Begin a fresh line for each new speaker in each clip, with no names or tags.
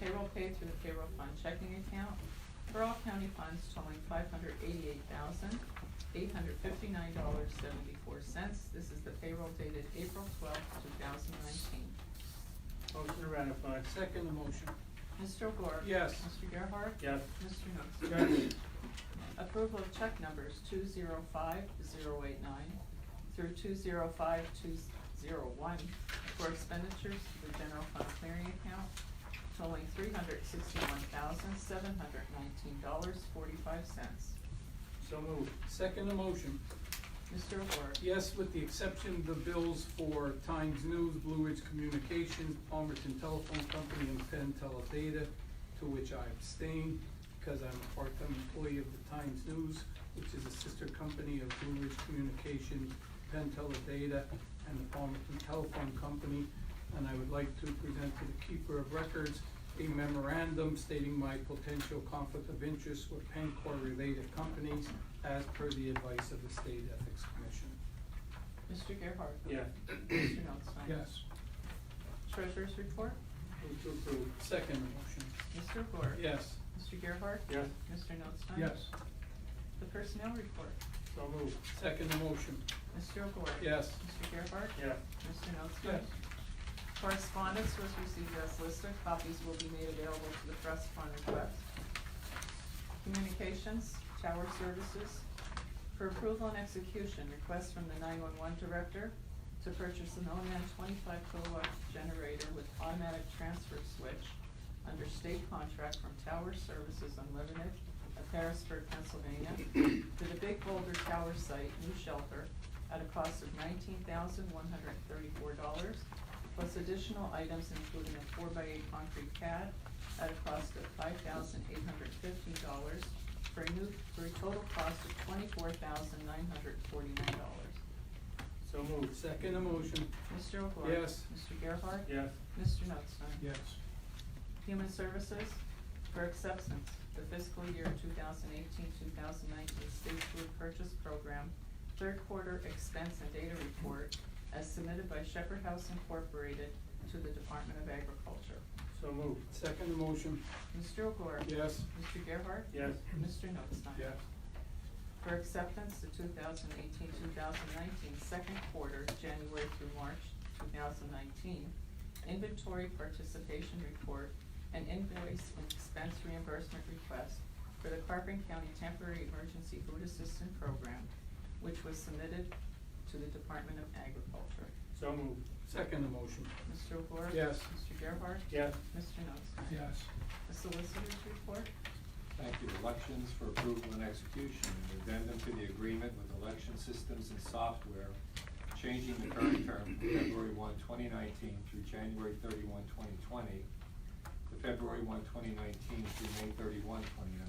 payroll paid through the payroll fund checking account for all county funds totaling five hundred eighty-eight thousand, eight hundred fifty-nine dollars, seventy-four cents. This is the payroll dated April twelfth, two thousand nineteen.
Motion to ratify.
Second the motion.
Mr. O'Gore?
Yes.
Mr. Gerhart?
Yes.
Mr. Knutson?
Yes.
Approval of check numbers two zero five zero eight nine through two zero five two zero one for expenditures to the general fund clearing account totaling three hundred sixty-one thousand, seven hundred nineteen dollars, forty-five cents.
So moved.
Second the motion.
Mr. O'Gore?
Yes, with the exception of the bills for Times News, Blue Ridge Communications, Palmerton Telephone Company, and Penn Teledata, to which I abstain because I'm a part-time employee of the Times News, which is a sister company of Blue Ridge Communications, Penn Teledata, and the Palmerton Telephone Company. And I would like to present to the keeper of records a memorandum stating my potential conflict of interest with Pencor-related companies as per the advice of the State Ethics Commission.
Mr. Gerhart?
Yes.
Mr. Knutson?
Yes.
Treasurer's report?
Move to approve.
Second motion.
Mr. O'Gore?
Yes.
Mr. Gerhart?
Yes.
Mr. Knutson?
Yes.
The personnel report?
So moved.
Second motion.
Mr. O'Gore?
Yes.
Mr. Gerhart?
Yes.
Mr. Knutson?
Yes.
Correspondence was received as listed, copies will be made available to the press upon request. Communications, Tower Services, for approval and execution, request from the nine-one-one director to purchase an OMAN twenty-five kilowatt generator with automatic transfer switch under state contract from Tower Services Unlimited of Harrisburg, Pennsylvania, to the Big Boulder Tower Site new shelter at a cost of nineteen thousand one hundred thirty-four dollars, plus additional items including a four-by-eight concrete pad at a cost of five thousand eight hundred fifteen dollars for a new, for a total cost of twenty-four thousand nine hundred forty-nine dollars.
So moved.
Second motion.
Mr. O'Gore?
Yes.
Mr. Gerhart?
Yes.
Mr. Knutson?
Yes.
Human Services for acceptance, the fiscal year 2018-2019 state food purchase program, third quarter expense and data report as submitted by Shepherd House Incorporated to the Department of Agriculture.
So moved.
Second motion.
Mr. O'Gore?
Yes.
Mr. Gerhart?
Yes.
Mr. Notstein?
Yes.
for acceptance to 2018-2019 second quarter, January through March two thousand nineteen, inventory participation report and invoice and expense reimbursement request for the Carpenter County Temporary Emergency Food Assistance Program, which was submitted to the Department of Agriculture.
So moved.
Second motion.
Mr. O'Gore?
Yes.
Mr. Gerhart?
Yes.
Mr. Nostine?
Yes.
The solicitor's report?
Thank you. Elections for approval and execution, an addendum to the agreement with election systems and software, changing the current term from February 1, 2019 through January 31, 2020, to February 1, 2019 through May 31, 2019.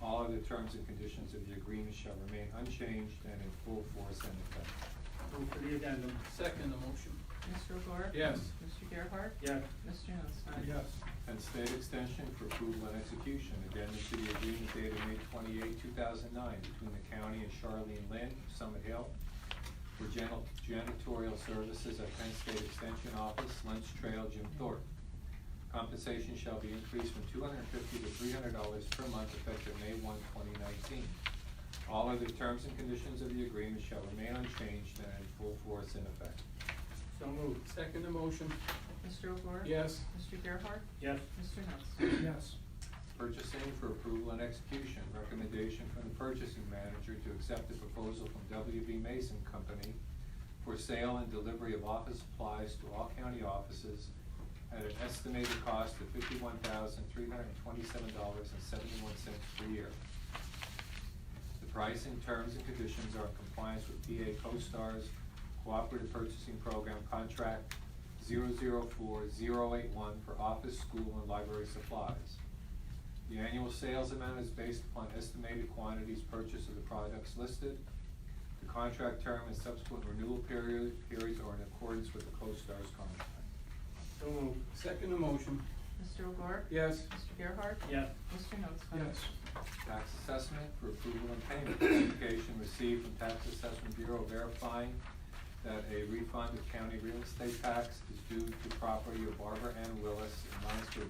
All other terms and conditions of the agreement shall remain unchanged and in full force and effect.
Move for the addendum.
Second motion.
Mr. O'Gore?
Yes.
Mr. Gerhart?
Yes.
Mr. Nostine?
and state extension for approval and execution. Addendum to the agreement dated May 28, 2009, between the county and Charlene Lynn, of Summit Hill, for janitor- janitorial services at Penn State Extension Office, Lynch Trail, Jim Thorpe. Compensation shall be increased from $250 to $300 per month effective May 1, 2019. All other terms and conditions of the agreement shall remain unchanged and in full force and effect.
So moved.
Second motion.
Mr. O'Gore?
Yes.
Mr. Gerhart?
Yes.
Mr. Knutson?
Yes.
Purchasing for approval and execution, recommendation from the purchasing manager to accept the proposal from WB Mason Company for sale and delivery of office supplies to all county offices at an estimated cost of fifty-one thousand, three hundred and twenty-seven dollars and seventy-one cents per year. The pricing, terms, and conditions are in compliance with PA CoStar's Cooperative Purchasing Program Contract 004081 for office, school, and library supplies. The annual sales amount is based upon estimated quantities purchased of the products listed. The contract term and subsequent renewal period, periods are in accordance with the CoStar's contract.
So moved.
Second motion.
Mr. O'Gore?
Yes.
Mr. Gerhart?
Yes.
Mr. Notstein?
Yes.
Tax assessment for approval and payment. Notification received from Tax Assessment Bureau verifying that a refund of county real estate tax is due to property of Barbara Ann Willis in Minesburg,